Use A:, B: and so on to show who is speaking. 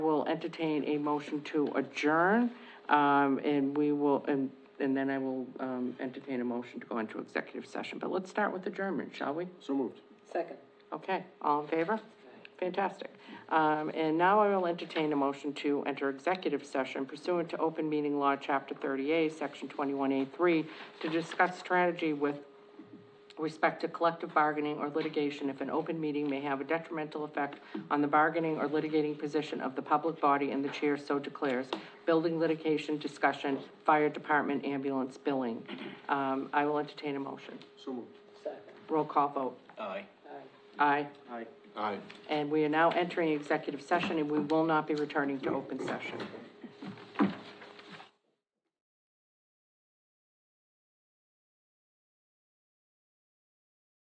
A: entertain a motion to adjourn, um, and we will, and, and then I will, um, entertain a motion to go into executive session, but let's start with adjournment, shall we?
B: So moved.
C: Second.
A: Okay, all in favor? Fantastic. Um, and now I will entertain a motion to enter executive session pursuant to open meeting law, chapter thirty-eight, section twenty-one A three, to discuss strategy with respect to collective bargaining or litigation if an open meeting may have a detrimental effect on the bargaining or litigating position of the public body and the chair so declares, building litigation, discussion, fire department, ambulance, billing. Um, I will entertain a motion.
B: So moved.
C: Second.
A: Roll call vote.
D: Aye.
C: Aye.
A: Aye.
B: Aye.
D: Aye.
A: And we are now entering executive session, and we will not be returning to open session.